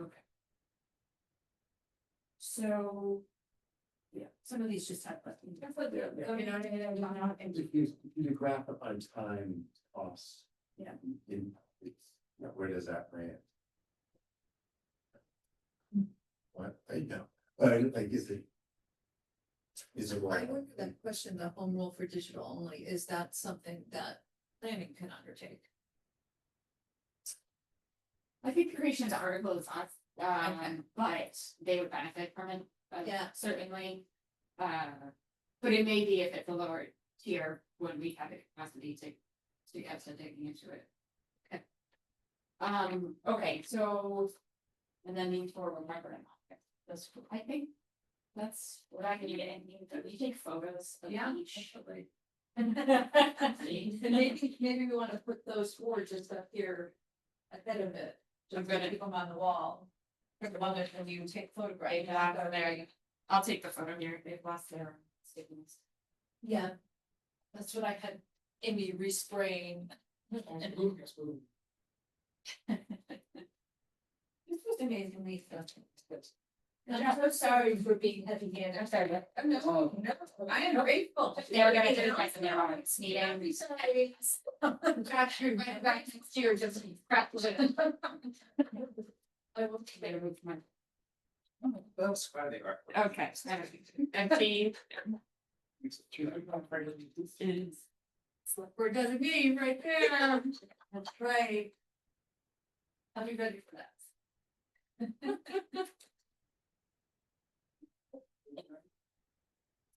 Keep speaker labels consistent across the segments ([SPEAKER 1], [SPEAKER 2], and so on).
[SPEAKER 1] Okay. So. Yeah, some of these just have. buttons.
[SPEAKER 2] Yeah.
[SPEAKER 1] You know, they're not-
[SPEAKER 2] If you, if you graph it on time costs.
[SPEAKER 1] Yeah.
[SPEAKER 2] In, it's, now where does that rank? What, I know, I, I guess it. Is it
[SPEAKER 3] I
[SPEAKER 2] like,
[SPEAKER 3] wonder that question, the home rule for digital only, is that something that planning can undertake?
[SPEAKER 4] I think creation of the article is us, um, but they would benefit from it. uh,
[SPEAKER 3] Yeah.
[SPEAKER 4] Certainly. Uh, but it may be if it's a lower tier, when we have the capacity to, to get some digging into it. Okay. Um, okay, so, and then these four were never in office. That's, I think, that's what I can get in, we take photos of
[SPEAKER 3] Yeah,
[SPEAKER 4] each.
[SPEAKER 3] actually. And
[SPEAKER 4] Maybe
[SPEAKER 3] maybe, maybe we wanna put those four just up here ahead of it,
[SPEAKER 4] I'm
[SPEAKER 3] just
[SPEAKER 4] gonna-
[SPEAKER 3] to keep them on the wall. For the moment when you take photographs.
[SPEAKER 4] Yeah, go there, you- I'll take the photo here, they've lost their stickings.
[SPEAKER 3] Yeah. That's what I had Amy respraying. This was amazingly frustrating. And I'm so sorry for being heavy handed. I'm sorry. Oh, No, no, I am grateful.
[SPEAKER 4] They were gonna do it like in their own meeting.
[SPEAKER 3] Gosh, you're
[SPEAKER 4] Right back next year, just crap. I will take it with my.
[SPEAKER 2] that's why they are.
[SPEAKER 4] Okay. Empty.
[SPEAKER 3] Select board designee right there. That's right. I'll be ready for that.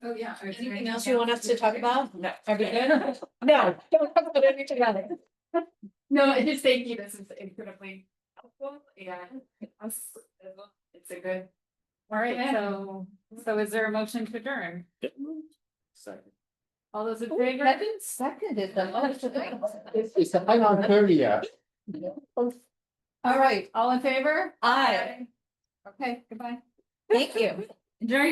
[SPEAKER 3] Oh, yeah.
[SPEAKER 1] Anything else you want us to talk about?
[SPEAKER 4] No.
[SPEAKER 1] Are we good? No, don't talk about anything else.
[SPEAKER 4] No, I just thank you, this is incredibly helpful, yeah. It's a good.
[SPEAKER 1] All right, so, so is there a motion to adjourn?
[SPEAKER 2] Second.
[SPEAKER 1] All those in favor?
[SPEAKER 3] Kevin seconded the
[SPEAKER 2] It's, I'm on thirty, yeah.
[SPEAKER 1] All right, all in favor?
[SPEAKER 3] Aye.
[SPEAKER 1] Okay, goodbye.
[SPEAKER 3] Thank you.
[SPEAKER 1] Adjourn your